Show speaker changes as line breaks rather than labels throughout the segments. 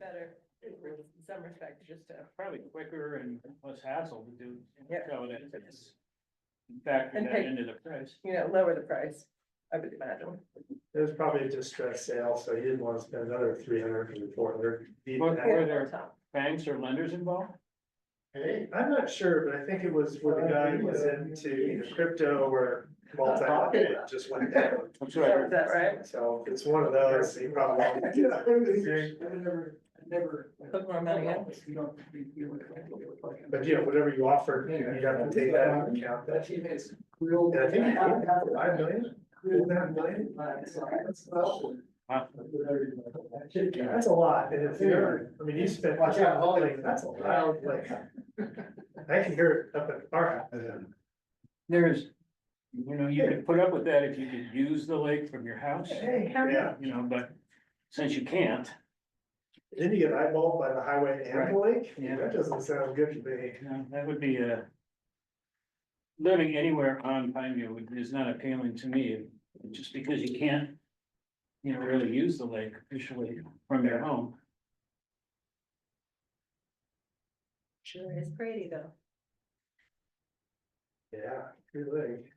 better in some respects, just to.
probably quicker and less hassle to do.
Yeah.
so that it's- Factor
And
that
pay-
into the price.
you know, lower the price, I would imagine.
It was probably a distressed sale, so he didn't want to spend another three hundred or four hundred.
Well, Were there- Banks or lenders involved?
Hey, I'm not sure, but I think it was where the guy was into either crypto or multi-market, it just went down.
I'm
So
sorry,
Is that right?
So if it's one of those, he probably.
never, I never.
Put more money in.
You don't, you, you would.
But you know, whatever you offer, you have to take that into account.
That team is grilled.
And I think he did have five million,
Grilled that million. uh, it's like, that's special.
Huh.
that's a lot, and if you're, I mean, you spent.
Watch out, hold it.
Like, That's a lot, like. I can hear it up at our house.
there's, you know, you could put up with that if you could use the lake from your house,
Hey,
Yeah, you know, but since you can't,
Then you get eyeballed by the highway and the lake,
Yeah.
that doesn't sound good to me.
you know, that would be a. Living anywhere on Pineview would- is not appealing to me, just because you can't. You know, really use the lake officially from your home.
Sure is pretty though.
Yeah, good lake.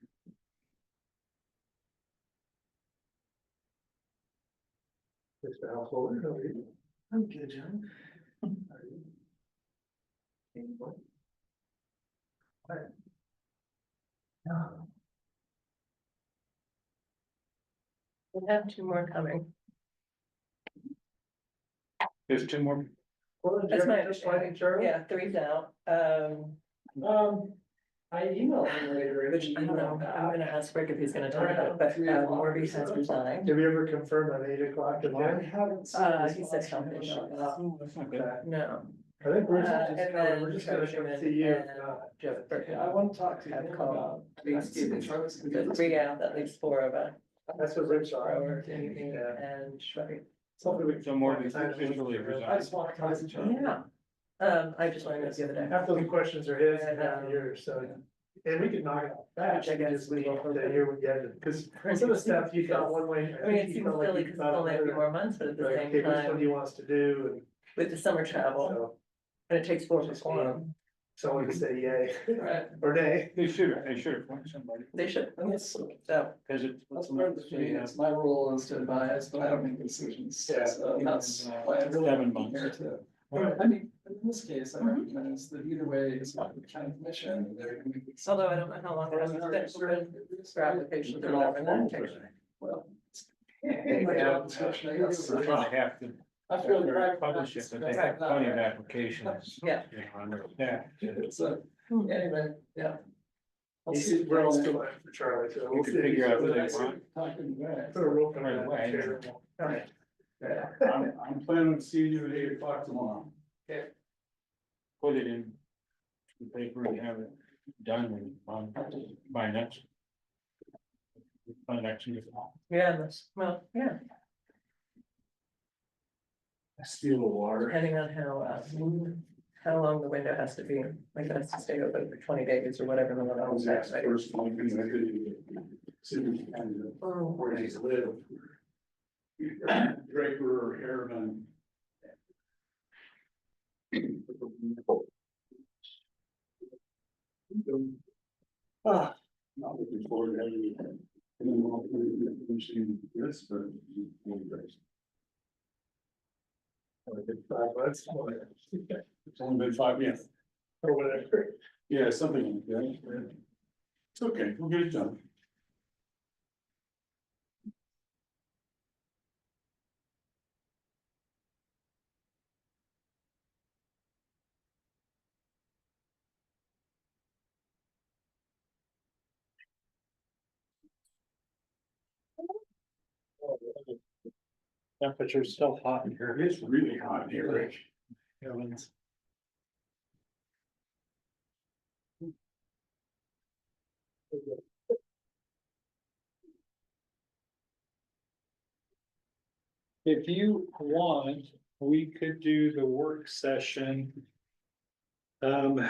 Mr. Householder, how are you? I'm good, John.
We have two more coming.
There's two more.
Well,
That's my
Jeremy, just like Jeremy.
Yeah, three's out. Um,
Um, I emailed him later.
which I don't know, I'm gonna ask Rick if he's gonna talk about, it, but uh, Morby has resigned.
Did we ever confirm on eight o'clock
I
tonight?
haven't. seen
Uh,
this
he said
option.
something about that.
Oh, that's not good.
Okay.
No,
I think we're
Uh,
just,
and
gonna- we're
then
just gonna
Treasurer
come see you. uh,
and- Jeff Burton.
I want to talk to him
Have
about.
called.
Thanksgiving trucks.
The three out, that leaves four of us,
That's what Rich
or
are.
over anything and Shrek.
Something we.
So more than officially
I
resigned.
just want to talk to Jeremy.
Yeah. Um, I just learned this the other day.
Half those questions are his
And,
and half
um,
yours, so, and we could knock it out
Which
fast,
I
and
guess
just leave
we-
it to hear what you had, because some of the stuff you thought one way.
I mean, it seems silly because it's only a few more months, but at the
Like,
same
okay, which one
time,
he wants to do, and
with the summer travel,
so,
and it takes four to form.
someone can say yay
Right.
or nay.
They should, have- they should have appointed somebody,
They should,
That's,
so,
because it's.
that's part of the meeting. It's my role is to advise, but I don't make decisions.
Yeah.
So that's why I really
Seven
want to be here
months.
to.
Right.
I mean, in this case, I
Mhm.
recognize that either way is not the county commission. They're gonna make this-
although I don't know how long that was, but for applications or whatever, that takes.
Well.
Yeah. We're
I
gonna have to
feel.
They're publish it, but they have plenty of applications.
Yeah.
you know, on their staff to-
So,
Hmm.
anyway, yeah. I'll
He's-
see.
We're all still in for Charlie, so.
We
we'll
could
see.
figure out who they
Put
want.
Talking back.
a rope on
Right
that
away.
chair. Alright.
Yeah.
I'm, I'm planning to see you at eight o'clock tomorrow.
Put it in the paper and have it done and on by next. By next year.
Yeah, that's, well, yeah,
I steal the water.
depending on how, uh, how long the window has to be, like it has to stay open for twenty days or whatever the
I
one
was
was
asked
actually.
first one connected. City Canada,
Oh.
where he's lived. Draper or Harriman. Ah, not looking forward to having you. And then I'll put it in the machine, yes, but.
Five months,
It's only been five minutes.
or whatever.
Yeah, something like that. It's okay, we'll get it done.
Temperature's still hot in here.
It's really hot in here, Rich.
If you want, we could do the work session. Um,